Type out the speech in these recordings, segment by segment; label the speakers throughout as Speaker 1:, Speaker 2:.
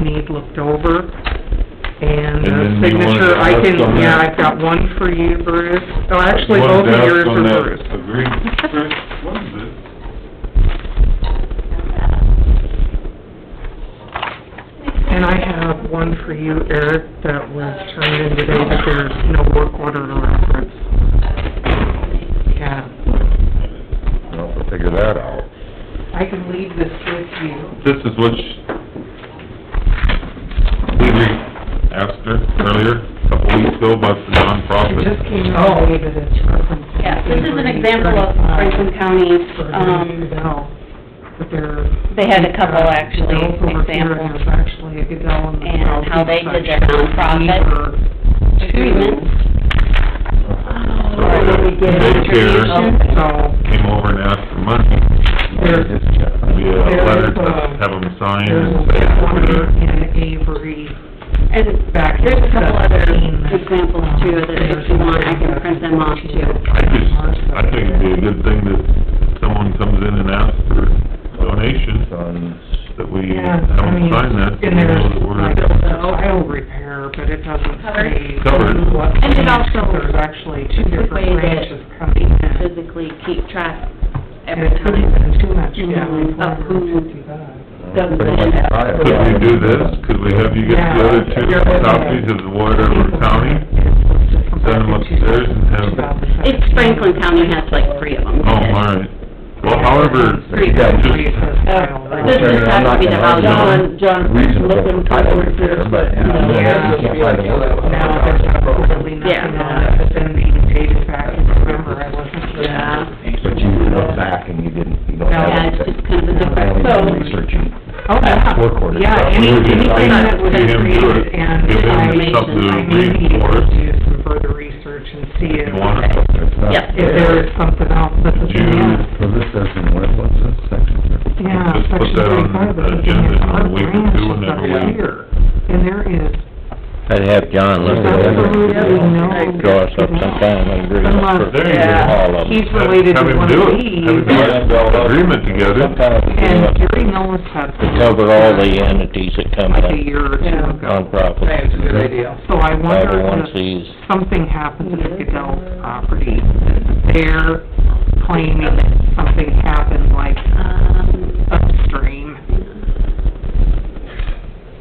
Speaker 1: need looked over. And
Speaker 2: And
Speaker 1: a
Speaker 2: then you wanted
Speaker 1: signature,
Speaker 2: to
Speaker 1: I
Speaker 2: ask
Speaker 1: can,
Speaker 2: on
Speaker 1: yeah,
Speaker 2: that?
Speaker 1: I've got one for you, Bruce. Oh, actually, both of yours are Bruce.
Speaker 2: Agreed, Chris, what is it?
Speaker 1: And I have one for you, Eric, that was turned in today, but there's no work order to reference. Yeah.
Speaker 3: I'll have to figure that out.
Speaker 1: I can leave this with you.
Speaker 2: This is what sh- we re- asked her earlier, a couple weeks ago, about
Speaker 1: It
Speaker 2: the
Speaker 1: just
Speaker 2: nonprofit.
Speaker 1: came out today that it's referenced.
Speaker 4: Oh. Yeah, this is an example of Franklin County, um,
Speaker 1: But there.
Speaker 4: they had a
Speaker 1: Uh,
Speaker 4: couple actually
Speaker 1: Gazelles over here, and
Speaker 4: examples.
Speaker 1: There's actually a gazelle in the
Speaker 4: And
Speaker 1: southeast
Speaker 4: how they did their
Speaker 1: section.
Speaker 4: nonprofit agreements.
Speaker 2: Or did we get a They care.
Speaker 4: Oh.
Speaker 2: contribution?
Speaker 1: So,
Speaker 2: Came over and asked for money,
Speaker 1: there's,
Speaker 2: we had a letter to
Speaker 1: um,
Speaker 2: have them sign
Speaker 1: there's
Speaker 2: and
Speaker 1: a
Speaker 2: say,
Speaker 1: former in Avery.
Speaker 4: And
Speaker 1: Back in
Speaker 4: there's a couple other
Speaker 1: 17.
Speaker 4: examples too, that if you want, I can print them off too.
Speaker 2: I just, I think it'd be a good thing that someone comes in and asks for donation, that we
Speaker 1: Yeah,
Speaker 2: have
Speaker 1: I
Speaker 2: them
Speaker 1: mean,
Speaker 2: sign that, so we
Speaker 1: and
Speaker 2: know
Speaker 1: there's
Speaker 2: that
Speaker 1: like
Speaker 2: we're...
Speaker 1: a tile repair, but it doesn't
Speaker 4: Covered.
Speaker 1: say.
Speaker 2: Covered.
Speaker 1: what
Speaker 4: And it
Speaker 1: branch,
Speaker 4: also-
Speaker 1: 'cause There's actually two
Speaker 4: It's a way
Speaker 1: different
Speaker 4: that
Speaker 1: branches coming in.
Speaker 4: Physically keep track
Speaker 1: And
Speaker 4: every
Speaker 1: it couldn't
Speaker 4: time.
Speaker 1: have been too much, yeah, like
Speaker 4: Mhm. Of who-
Speaker 1: 455.
Speaker 4: Doesn't
Speaker 2: Could we do this? Could we have you get the other two copies of whatever county? Send them upstairs and have,
Speaker 4: It's Franklin County has like three of them.
Speaker 2: oh, all right. Well, however,
Speaker 4: Three.
Speaker 2: just,
Speaker 4: This just has to be the house.
Speaker 2: John-
Speaker 3: John, looking over here, but, you know.
Speaker 1: Yeah. Now, there's not really
Speaker 4: Yeah.
Speaker 1: nothing on it, but then the data back, and remember, I wasn't here.
Speaker 4: Yeah.
Speaker 3: But you look back and you didn't, you don't
Speaker 4: Yeah,
Speaker 3: have
Speaker 4: it's
Speaker 3: anything.
Speaker 4: just kind of a
Speaker 3: I
Speaker 4: different.
Speaker 3: only
Speaker 1: So-
Speaker 3: been researching.
Speaker 1: Oh, yeah.
Speaker 3: Work order.
Speaker 1: Yeah, any-
Speaker 2: We were just
Speaker 1: anything
Speaker 2: saying,
Speaker 1: that was
Speaker 2: see him do
Speaker 1: created
Speaker 2: it,
Speaker 1: and
Speaker 2: give him
Speaker 1: I, I
Speaker 4: information.
Speaker 2: something to
Speaker 1: may
Speaker 2: read
Speaker 1: need
Speaker 2: for us,
Speaker 1: to do some further research and see if,
Speaker 2: if you want it.
Speaker 3: It's not
Speaker 4: Yep.
Speaker 1: if there is something else that's in
Speaker 2: June.
Speaker 1: there.
Speaker 3: So this doesn't, what, what's this section?
Speaker 1: Yeah,
Speaker 2: Just put
Speaker 1: section
Speaker 2: that on
Speaker 1: thirty-five,
Speaker 2: the
Speaker 1: but it's in
Speaker 2: agenda in a
Speaker 1: our
Speaker 2: week or
Speaker 1: branch
Speaker 2: two,
Speaker 1: is
Speaker 2: and then
Speaker 1: up
Speaker 2: we-
Speaker 1: here. And there is
Speaker 5: I'd have John look at
Speaker 1: absolutely
Speaker 5: it,
Speaker 1: no.
Speaker 5: draw us up sometime and agree on
Speaker 1: Unless-
Speaker 5: for
Speaker 2: There you
Speaker 1: yeah,
Speaker 5: all of them.
Speaker 1: He's related
Speaker 2: Have
Speaker 1: to
Speaker 2: him
Speaker 1: one
Speaker 2: do
Speaker 1: of
Speaker 2: it.
Speaker 1: these.
Speaker 2: Have him do it. Agreement
Speaker 5: Some
Speaker 2: together.
Speaker 5: kind of
Speaker 1: And
Speaker 5: agreement
Speaker 1: Gary Millis had
Speaker 5: to cover all the uh, entities that come
Speaker 1: like a
Speaker 5: in,
Speaker 1: year or two ago.
Speaker 5: nonprofits.
Speaker 3: Good
Speaker 1: So I
Speaker 5: Five oh
Speaker 1: wonder
Speaker 5: one
Speaker 1: if
Speaker 5: Cs,
Speaker 1: something happens at the Goodell's property, they're claiming something happened like
Speaker 4: Um,
Speaker 1: upstream.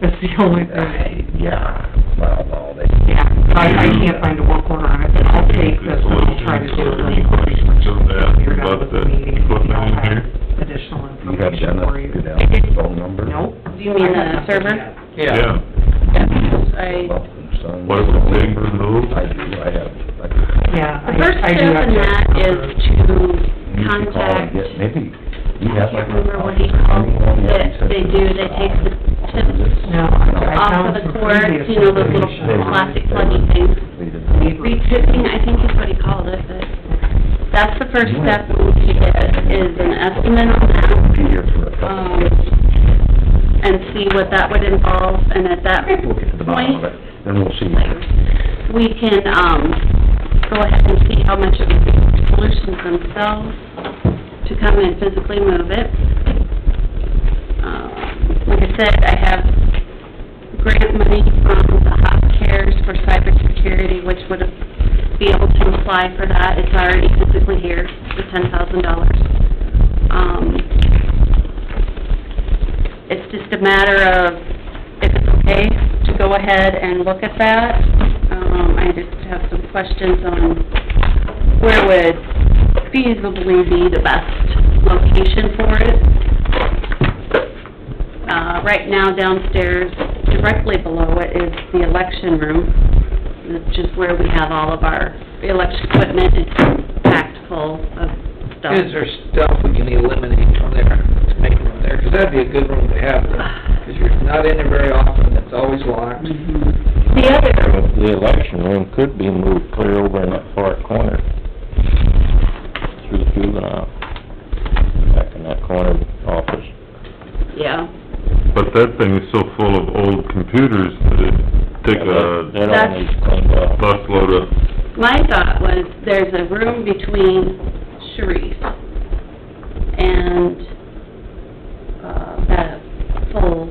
Speaker 1: That's the only thing,
Speaker 3: Yeah, well, no, they,
Speaker 1: yeah, I, I can't find a work order on it, but I'll take this
Speaker 2: Just
Speaker 1: and
Speaker 2: a little
Speaker 1: I'll try to do a
Speaker 2: research, Any
Speaker 1: little
Speaker 2: questions on
Speaker 1: You're done
Speaker 2: that,
Speaker 1: with
Speaker 2: about
Speaker 1: the
Speaker 2: the
Speaker 1: meeting,
Speaker 2: equipment in
Speaker 1: I'll have
Speaker 2: here?
Speaker 1: additional
Speaker 3: you got
Speaker 1: information for
Speaker 3: Dennis
Speaker 1: you.
Speaker 3: Goodell's phone number?
Speaker 1: Nope.
Speaker 4: do you mean the server?
Speaker 2: Yeah.
Speaker 4: I,
Speaker 2: What it would take to move?
Speaker 3: I do, I have, I could
Speaker 1: Yeah.
Speaker 4: the
Speaker 1: I-
Speaker 4: first
Speaker 1: I do
Speaker 4: step
Speaker 1: have
Speaker 4: in
Speaker 1: to-
Speaker 4: that is to
Speaker 3: You should call and
Speaker 4: contact
Speaker 3: get, maybe, you
Speaker 4: I
Speaker 3: have like.
Speaker 4: can't remember what he called it, that they do, they take the tips
Speaker 1: No, I I
Speaker 4: off
Speaker 1: found
Speaker 4: of
Speaker 1: some
Speaker 4: the cords,
Speaker 1: previous
Speaker 4: you know, those
Speaker 1: information
Speaker 4: little
Speaker 1: on
Speaker 4: plastic pluggy things.
Speaker 3: They
Speaker 1: it.
Speaker 4: Retipping, I think is what he called it, but that's the first step we need to get, is an estimate on
Speaker 3: did,
Speaker 4: that,
Speaker 3: be here for a couple of
Speaker 4: um,
Speaker 3: days.
Speaker 4: and see what that would involve, and at that
Speaker 3: We'll get to the bottom of
Speaker 4: point,
Speaker 3: it, then we'll see.
Speaker 4: like, we can, um, go ahead and see how much it would be for solutions themselves to come and physically move it. Um, Like I said, I have grant money from the Hot Cares for cybersecurity, which would be able to apply for that. It's already physically here, the ten thousand dollars. Um, it's just a matter of if it's okay to go ahead and look at that. Um, I just have some questions on where would feasibly be the best location for it. Uh, right now downstairs, directly below it is the election room, which is where we have all of our election equipment. It's packed full of stuff.
Speaker 6: Is there stuff we can eliminate from there, to make room there? Because that'd be a good room to have, because you're not in there very often, it's always locked.
Speaker 4: Mhm. The other
Speaker 5: the election room could be moved clear over in that far corner, through juvenile, back in that corner office.
Speaker 4: Yeah,
Speaker 2: But that thing is so full of old computers that it'd take a
Speaker 5: That all needs cleaned up.
Speaker 2: busload of
Speaker 4: my thought was, there's a room between Sharif and, uh, that full